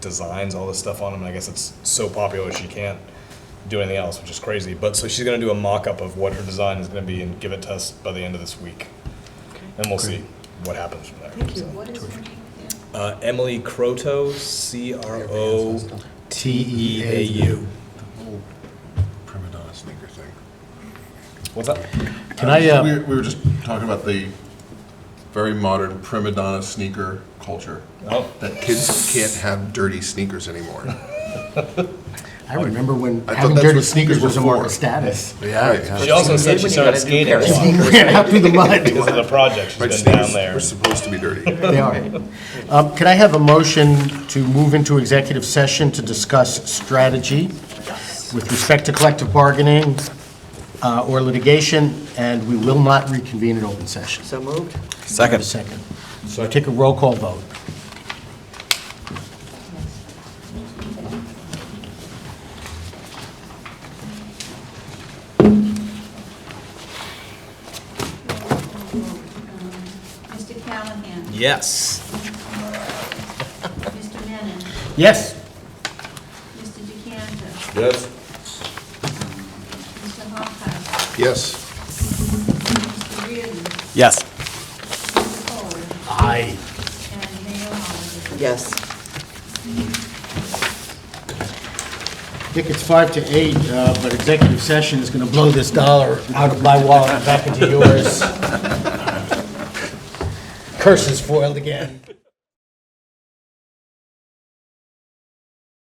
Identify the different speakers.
Speaker 1: designs all this stuff on them. And I guess it's so popular she can't do anything else, which is crazy. But so she's going to do a mock up of what her design is going to be and give it to us by the end of this week. And we'll see what happens from there.
Speaker 2: Thank you.
Speaker 1: So,
Speaker 2: What is your name?
Speaker 1: Uh, Emily Croto, C R O T E A U.
Speaker 3: Prima donna sneaker thing.
Speaker 1: What's that?
Speaker 4: Can I,
Speaker 3: Uh,
Speaker 4: uh,
Speaker 3: We were- we were just talking about the very modern prima donna sneaker culture,
Speaker 1: Oh,
Speaker 3: that kids can't have dirty sneakers anymore.
Speaker 5: I remember when
Speaker 3: I thought
Speaker 5: having
Speaker 3: that's
Speaker 5: dirty
Speaker 3: what
Speaker 5: sneakers
Speaker 3: sneakers
Speaker 5: was a
Speaker 3: were
Speaker 5: mark of
Speaker 3: for.
Speaker 5: status.
Speaker 3: Right.
Speaker 1: she also said she
Speaker 2: When you
Speaker 1: started
Speaker 2: got a new
Speaker 1: skating a
Speaker 2: pair of
Speaker 1: lot
Speaker 5: Ran out through the mud.
Speaker 1: because of the project. She's
Speaker 3: Right,
Speaker 1: been
Speaker 3: sneakers
Speaker 1: down there.
Speaker 3: We're supposed to be dirty.
Speaker 5: They are. Um, Can I have a motion to move into executive session to discuss strategy with respect to collective bargaining uh, or litigation, and we will not reconvene in open session?
Speaker 2: So moved?
Speaker 5: Second. Second. So I take a roll call vote.
Speaker 6: Um, Mr. Callahan?
Speaker 1: Yes.
Speaker 6: Mr. Menon?
Speaker 5: Yes?
Speaker 6: Mr. DeCanto?
Speaker 3: Yes.
Speaker 6: Mr. Hophouse?
Speaker 3: Yes.
Speaker 6: Mr. Reardon?
Speaker 1: Yes.
Speaker 6: Mr. Cole?
Speaker 5: Aye.
Speaker 6: And Mayor Holliday?
Speaker 2: Yes.
Speaker 5: I think it's five to eight, uh, but executive session is going to blow this dollar out of my wallet and back into yours. Curses foiled again.